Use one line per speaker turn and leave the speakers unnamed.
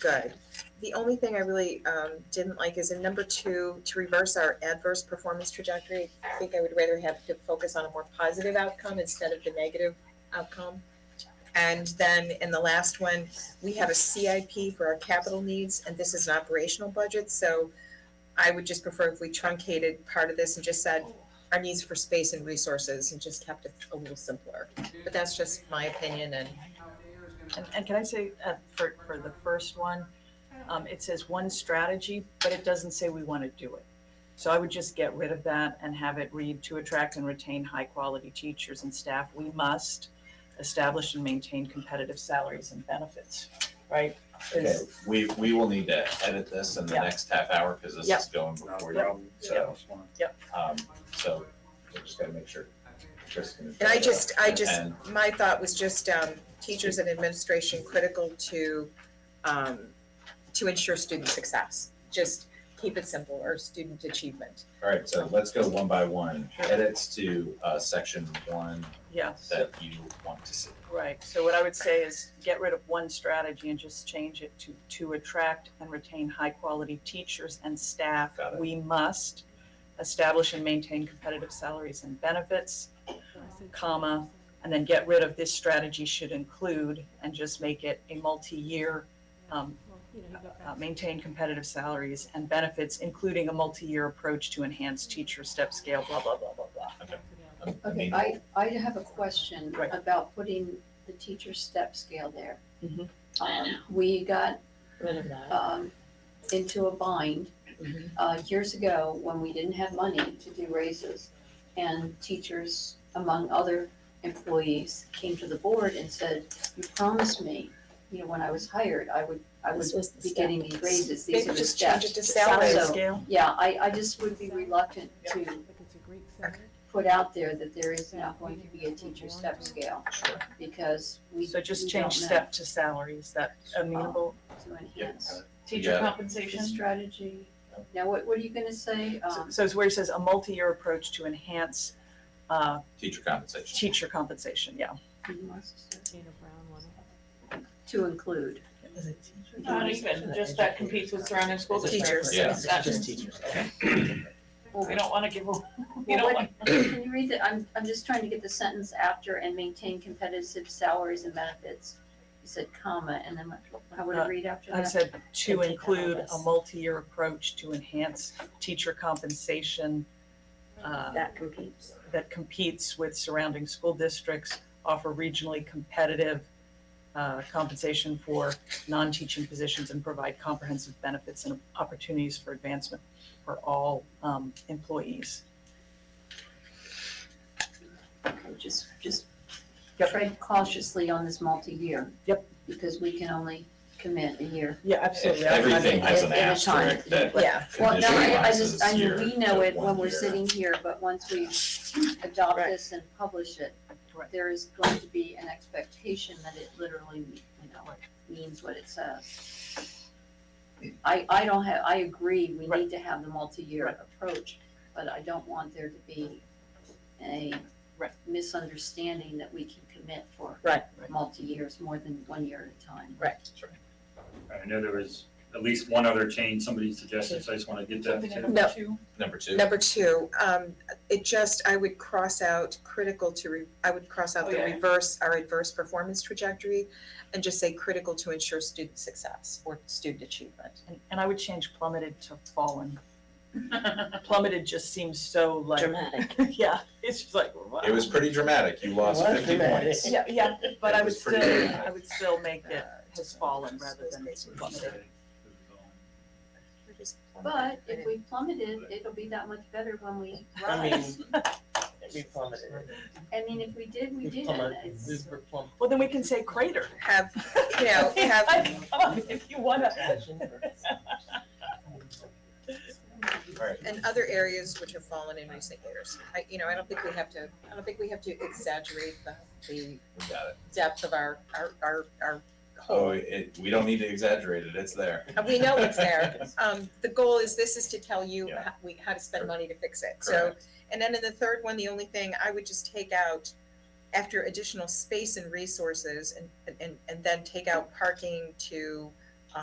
good. The only thing I really um didn't like is in number two, to reverse our adverse performance trajectory, I think I would rather have to focus on a more positive outcome instead of the negative outcome. And then in the last one, we have a CIP for our capital needs, and this is an operational budget, so I would just prefer if we truncated part of this and just said our needs for space and resources and just kept it a little simpler. But that's just my opinion and
And, and can I say, uh, for, for the first one, um, it says one strategy, but it doesn't say we want to do it. So I would just get rid of that and have it read, to attract and retain high-quality teachers and staff, we must establish and maintain competitive salaries and benefits, right? 'Cause-
Okay, we, we will need to edit this in the
Yeah.
next half hour, because this
Yep.
is going before you, so, um, so, we just gotta make sure. Chris can-
And I just- I just-
And-
my thought was just um teachers and administration critical to um to ensure student success. Just keep it simple or student achievement.
All right, so let's go one by one,
Sure.
edits to, uh, section one
Yes,
that you want to see.
right, so what I would say is get rid of one strategy and just change it to, to attract and retain high-quality teachers and staff.
Got it.
We must establish and maintain competitive salaries and benefits. comma, and then get rid of this strategy should include and just make it a multi-year, um, uh, maintain competitive salaries and benefits, including a multi-year approach to enhance teacher step scale, blah, blah, blah, blah, blah.
Um, I
Okay,
mean,
I, I have a question
Right.
about putting the teacher step scale there.
Mhm.
Mm-hmm.
Um, we got,
Rid of that.
um, into a bind,
Mm-hmm.
Mhm.
uh, years ago when we didn't have money to do raises. And teachers, among other employees, came to the board and said, you promised me, you know, when I was hired, I would, I would
This was the
be
step.
getting these raises, these
Maybe
are the
just change it
steps.
to salaries.
So-
Scale,
Yeah, I, I just would be reluctant to put out there that there is not going to be a teacher step scale
Sure,
because we.
so just
we don't
change
know
step to salaries, that amenable.
To
yeah,
enhance
Teacher Yeah.
the
compensation.
strategy. Now, what, what are you gonna say? Um,
So it's where it says a multi-year approach to enhance, uh,
teacher compensation,
teacher compensation, yeah.
do you want us to say? um, To include.
Not even, just that competes with surrounding schools.
Just Teachers.
Yeah.
That's-
Just teachers, okay.
Well,
We don't wanna give, a- we
well,
don't
what-
want,
Can you read the, I'm, I'm just trying to get the sentence after and maintain competitive salaries and benefits. You said comma, and then what- how would
Uh,
it read after
I
that?
said to
And take out all
include a
this.
multi-year approach to enhance teacher compensation uh,
That competes.
that competes with surrounding school districts, offer regionally competitive uh, compensation for non-teaching positions and provide comprehensive benefits and opportunities for advancement for all um, employees.
Okay, just, just
Yep.
tread cautiously on this multi-year.
Yep.
Because we can only commit a year.
Yeah,
absolutely. Everything has an
At- at a time,
asterisk that
but-
Yeah,
Well, no, I, I
conditionalizes
just, I mean,
year
we know
to
it when
one
we're
year.
sitting here, but once we adopt
Right.
this and publish it,
Right.
there is going to be an expectation that it literally, you know, means what it says. I, I don't have, I agree, we
Right.
need to have the multi-year
Right.
approach, but I don't want there to be a
Right.
misunderstanding that we can commit for
Right.
multi-years, more than one year at a time.
I know there was at least one other change somebody suggested, so I just want to get that
something
to.
in
No.
number two,
number two.
number two, um it just, I would cross out critical to re, I would cross out the
Oh,
Okay.
reverse, our adverse performance trajectory and just say critical to ensure student success or student achievement.
And- And I would change plummeted to fallen. Plummeted just seems so like,
Dramatic.
yeah, it's just like, wow.
It was pretty dramatic, you lost
It was
fifty
dramatic.
points.
Yeah, yeah, but I would
was
still,
pretty good.
I would still make it
Uh,
has fallen rather than plummeted.
But if we plummeted, it'll be that much better when we
I
rise.
mean, we plummeted.
I mean, if we did, we
We
did.
plummeted, we
It's-
were plummeted.
Well, then we can say crater.
Have, you know, have,
Come on, if you wanna.
and other areas which have fallen in recent years. I, you know, I don't think we have to, I don't think we have to exaggerate the, the
We got it.
depth of our, our, our, our
Oh,
whole.
it, we don't need to exaggerate it, it's there.
We know it's there. Um, the goal is, this is to tell you
Yeah.
how, we, how to spend money to fix it, so.
Correct.
And then in the third one, the only thing I would just take out after additional space and resources and, and, and then take out parking to,